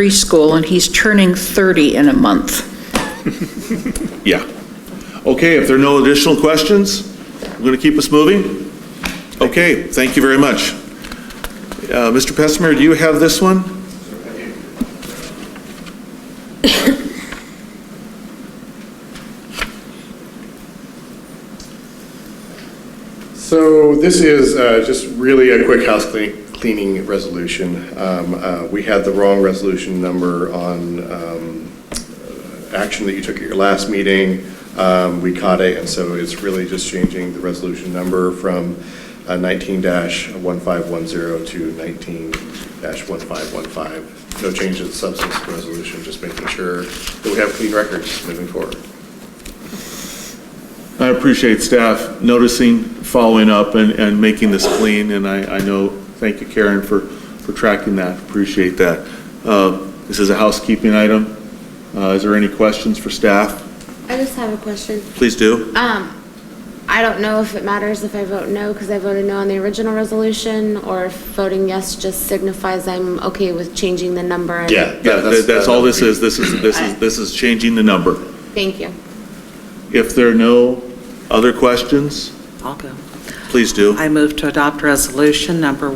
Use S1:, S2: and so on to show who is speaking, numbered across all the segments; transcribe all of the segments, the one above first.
S1: preschool, and he's turning 30 in a month.
S2: Yeah. Okay, if there are no additional questions, we're going to keep us moving? Okay, thank you very much. Uh, Mr. Pessmer, do you have this one?
S3: So this is uh, just really a quick house clean- cleaning resolution. Um, uh, We had the wrong resolution number on um, uh, action that you took at your last meeting. Um, We caught it, and so it's really just changing the resolution number from uh, 19-1510 to 19-1515. No change in the substance of the resolution, just making sure that we have clean records moving forward.
S2: I appreciate staff noticing, following up, and, and making this clean, and I, I know, thank you, Karen, for, for tracking that, appreciate that. Uh, This is a housekeeping item. Uh, Is there any questions for staff?
S4: I just have a question.
S2: Please do.
S4: Um, I don't know if it matters if I vote no, because I voted no on the original resolution, or if voting yes just signifies I'm okay with changing the number. and-
S3: Yeah.
S2: Yeah, that- that's all this is, this is, this is, this is changing the number.
S4: Thank you.
S2: If there are no other questions,
S5: I'll go.
S2: please do.
S5: I move to adopt resolution number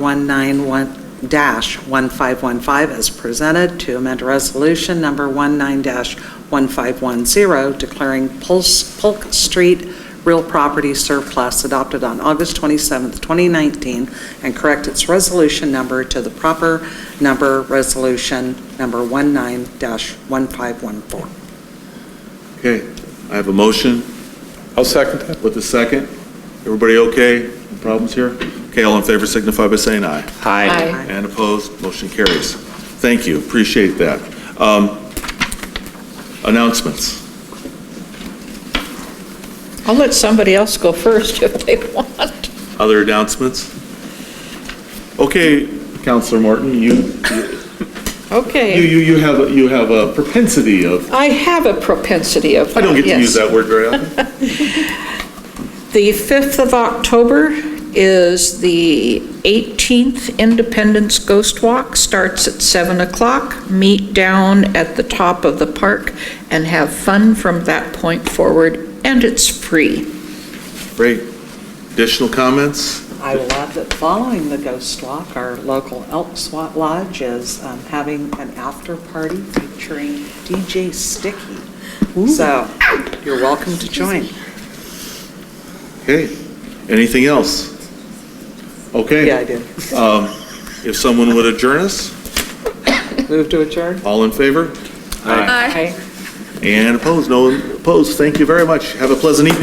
S5: 191-1515 as presented to amend resolution number 19-1510 declaring Pulse- Polk Street real property surplus adopted on August 27th, 2019, and correct its resolution number to the proper number, resolution number 19-1514.
S2: Okay, I have a motion
S6: I'll second that.
S2: with a second. Everybody okay? No Problems here? Okay, all in favor signify by saying aye.
S6: Aye.
S2: And opposed, motion carries. Thank you, appreciate that. Um, Announcements.
S1: I'll let somebody else go first if they want.
S2: Other announcements? Okay, Counselor Morton, you, you,
S1: Okay,
S2: you you have, a- you have a propensity of,
S1: I have a propensity of
S2: I don't get to use
S1: yes.
S2: that word very often.
S1: The 5th of October is the 18th Independence Ghost Walk, starts at 7 o'clock. Meet down at the top of the park and have fun from that point forward, and it's free.
S2: Great. Additional comments?
S5: I love that following the Ghost Walk, our local Elks Wa- Lodge is um, having an after-party featuring DJ Sticky. So you're welcome to join.
S2: Okay, anything else? Okay.
S5: Yeah, I did.
S2: Um, If someone would adjourn us,
S5: Move to adjourn?
S2: all in favor? Aye. And opposed, no one opposed, thank you very much, have a pleasant evening.